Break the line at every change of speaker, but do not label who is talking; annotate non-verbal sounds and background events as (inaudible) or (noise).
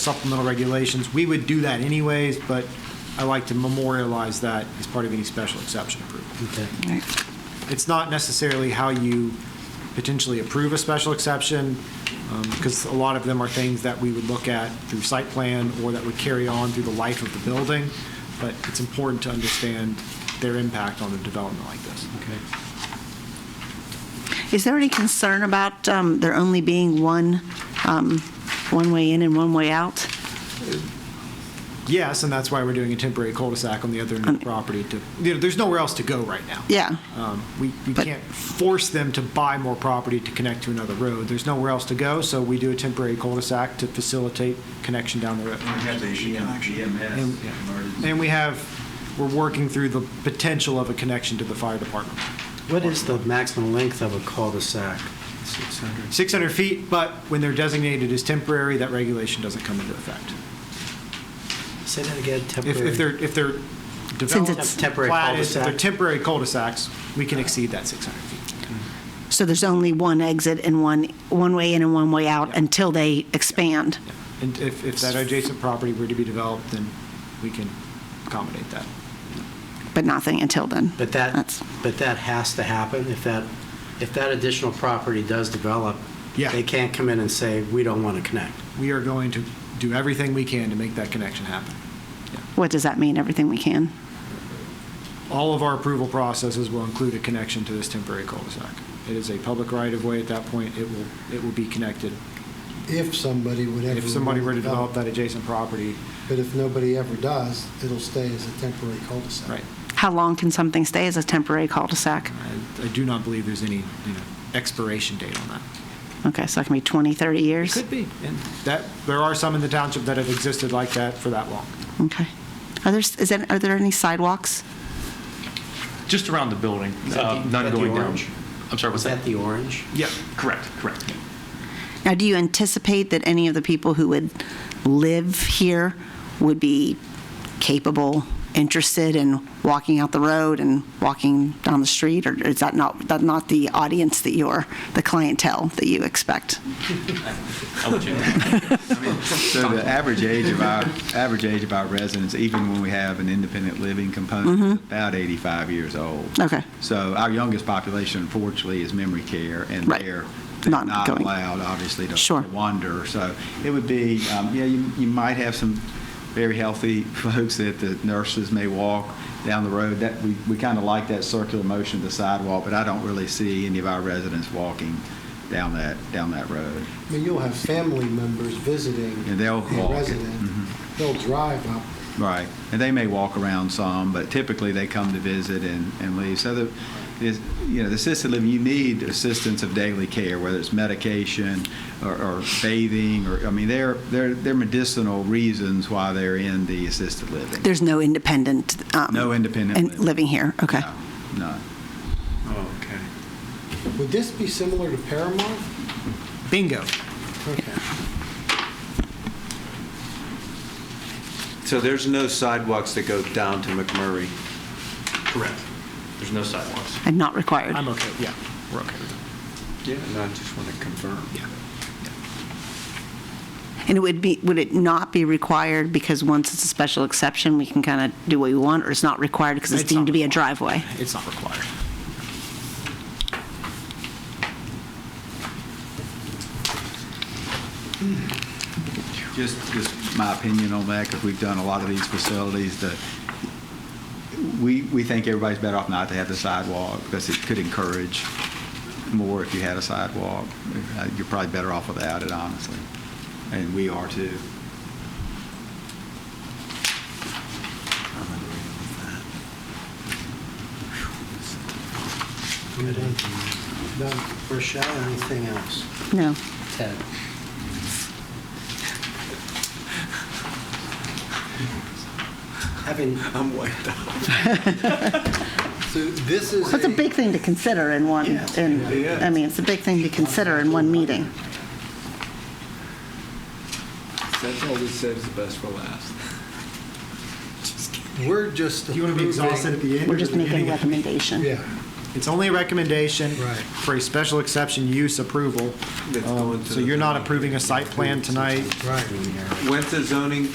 supplemental regulations. We would do that anyways, but I like to memorialize that as part of any special exception approval.
Okay.
Right.
It's not necessarily how you potentially approve a special exception, because a lot of them are things that we would look at through site plan or that would carry on through the life of the building, but it's important to understand their impact on a development like this.
Okay.
Is there any concern about um, there only being one, um, one way in and one way out?
Yes, and that's why we're doing a temporary cul-de-sac on the other end of the property to, you know, there's nowhere else to go right now.
Yeah.
Um, We, we
But-
can't force them to buy more property to connect to another road. There's nowhere else to go, so we do a temporary cul-de-sac to facilitate connection down the road.
We have the issue connection.
And- And we have, we're working through the potential of a connection to the fire department.
What is the maximum length of a cul-de-sac? 600.
600 feet, but when they're designated as temporary, that regulation doesn't come into effect.
Say that again,
If,
temporary.
if they're, if they're developed,
it's-
Temporary
platted, if
cul-de-sac.
they're temporary cul-de-sacs, we can exceed that 600 feet.
So there's only one exit and one, one way in and one way out
Yeah.
until they expand?
And if, if that adjacent property were to be developed, then we can accommodate that.
But nothing until then?
But that,
That's-
but that has to happen. If that, if that additional property does develop,
Yeah.
they can't come in and say, we don't want to connect.
We are going to do everything we can to make that connection happen.
What does that mean, everything we can?
All of our approval processes will include a connection to this temporary cul-de-sac. It is a public right-of-way at that point. It will, it will be connected.
If somebody would ever.
If somebody were to develop that
it,
adjacent property,
But if nobody ever does, it'll stay as a temporary cul-de-sac.
right.
How long can something stay as a temporary cul-de-sac?
I I do not believe there's any, you know, expiration date on that.
Okay, so it can be 20, 30 years?
Could be. And that, there are some in the township that have existed like that for that long.
Okay. Are there, is there, are there any sidewalks?
Just around the building, uh,
Is that
none
the
going down.
orange?
I'm sorry,
Was
what's
that
that?
the orange?
Yeah.
Correct, correct.
Now, do you anticipate that any of the people who would live here would be capable, interested in walking out the road and walking down the street? Or is that not, that not the audience that you're, the clientele that you expect?
I'll let you know.
So the average age of
(laughs)
our, average age of our residents, even when we have an independent living component, is about 85 years old.
Mm-hmm. Okay.
So our youngest population, unfortunately, is memory care, and
Right.
they're they're
Not
not
going.
allowed, obviously, to-
Sure.
to wander. So it would be, um, yeah, you you might have some very healthy (laughs) folks that the nurses may walk down the road. That, we we kind of like that circular motion of the sidewalk, but I don't really see any of our residents walking down that, down that road.
I mean, you'll have family members visiting.
And they'll
a
walk it.
resident.
Mhm.
Mm-hmm.
They'll drive up.
Right, and they may walk around some, but typically they come to visit and, and leave. So the, is, you know, the assisted living, you need assistance of daily care, whether it's medication or, or bathing, or, I mean, there, there, there are medicinal reasons why they're in the assisted living.
There's no independent. um,
No independent
and
living.
Living here, okay.
No, None.
Okay.
Would this be similar to Paramount?
Bingo.
Okay.
So there's no sidewalks that go down to McMurray?
Correct. There's no sidewalks.
And not required?
I'm okay, yeah, we're okay with that.
Yeah. No, I just want to confirm.
Yeah.
And it would be, would it not be required because once it's a special exception, we can kind of do what we want? Or it's not required because it's
It's not
deemed to be a
required.
driveway?
It's not required.
Just, just my opinion on that, because we've done a lot of these facilities, the, we, we think everybody's better off not to have the sidewalk, because it could encourage more if you had a sidewalk. Uh, You're probably better off without it, honestly, and we are too.
Good. Done. Rochelle, anything else?
No.
Ted? Having,
I'm wiped out.
So this is.
That's a big thing to consider in one,
Yes.
in, I mean, it's a big thing to consider in one meeting.
That's all we said is best for last.
We're just.
Do you want to be
approving-
exhausted at the end?
We're just making a recommendation.
Yeah.
It's only a recommendation
Right.
for a special exception use approval.
That's
Um,
going to
So
the-
you're not approving a site plan tonight.
Right.
When's the zoning